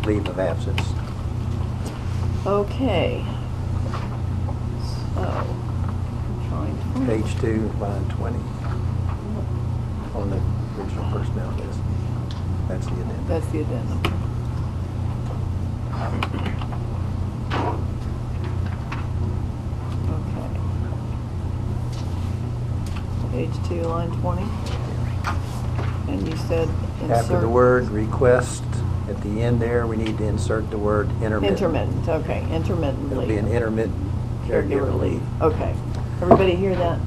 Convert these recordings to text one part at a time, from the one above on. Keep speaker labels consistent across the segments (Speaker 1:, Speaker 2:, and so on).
Speaker 1: leave of absence.
Speaker 2: Okay. So, I'm trying to find.
Speaker 1: Page two, line twenty, on the original personnel list. That's the addendum.
Speaker 2: That's the addendum. Okay. Page two, line twenty. And you said insert.
Speaker 1: After the word request, at the end there, we need to insert the word intermittent.
Speaker 2: Intermittent, okay, intermittently.
Speaker 1: It'll be an intermittent caregiver leave.
Speaker 2: Okay. Everybody hear that?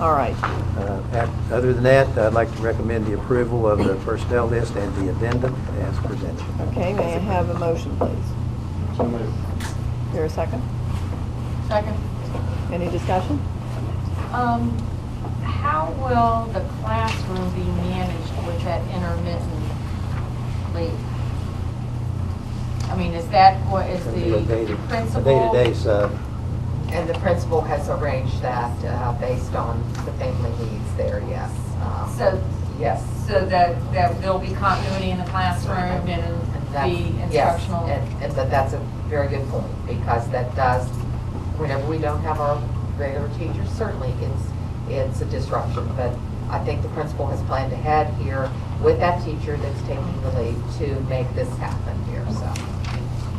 Speaker 2: All right.
Speaker 1: Uh, ac- Other than that, I'd like to recommend the approval of the personnel list and the addendum as presented.
Speaker 2: Okay, may I have a motion, please? Here a second?
Speaker 3: Second.
Speaker 2: Any discussion?
Speaker 3: Um, how will the classroom be managed with that intermittent leave? I mean, is that what is
Speaker 1: It's gonna be a day to-
Speaker 3: the principal?
Speaker 1: A day-to-day's, uh,
Speaker 4: And the principal has arranged that uh, based on the family needs there, yes. Um,
Speaker 3: So-
Speaker 4: Yes.
Speaker 3: So that, that there'll be continuity in the classroom and
Speaker 4: That's-
Speaker 3: the
Speaker 4: yes,
Speaker 3: instructional?
Speaker 4: and- And that- that's a very good point, because that does, whenever we don't have our regular teachers, certainly it's, it's a disruption. But I think the principal has planned ahead here with that teacher that's taking the lead to make this happen here, so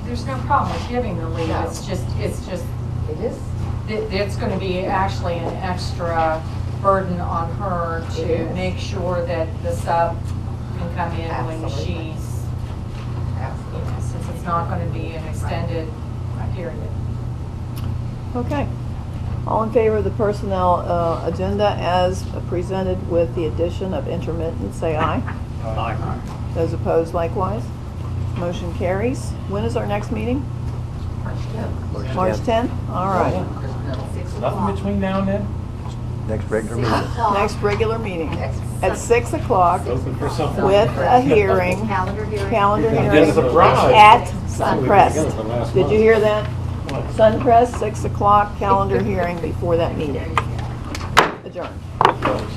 Speaker 3: There's no problem with giving the leave,
Speaker 4: No.
Speaker 3: it's just, it's just,
Speaker 4: it is,
Speaker 3: it- it's going to be actually an extra burden on her
Speaker 4: It
Speaker 3: to
Speaker 4: is.
Speaker 3: make sure that the sub can come in when
Speaker 4: Absolutely.
Speaker 3: she's you
Speaker 4: absolutely.
Speaker 3: know, since it's not going to be an extended period.
Speaker 2: Okay. All in favor of the personnel uh, agenda as presented with the addition of intermittent, say aye. Those opposed likewise. Motion carries. When is our next meeting? March 10th? All right.
Speaker 5: Nothing between now and then?
Speaker 1: Next regular meeting.
Speaker 2: Next regular meeting at 6 o'clock with
Speaker 5: Open for something.
Speaker 2: a hearing,
Speaker 6: Calendar hearing.
Speaker 2: calendar
Speaker 5: Get a
Speaker 2: hearing
Speaker 5: surprise.
Speaker 2: at Suncrest. Did you hear that?
Speaker 5: What?
Speaker 2: Suncrest, 6 o'clock, calendar hearing before that meeting. Adjourned.
Speaker 5: Close.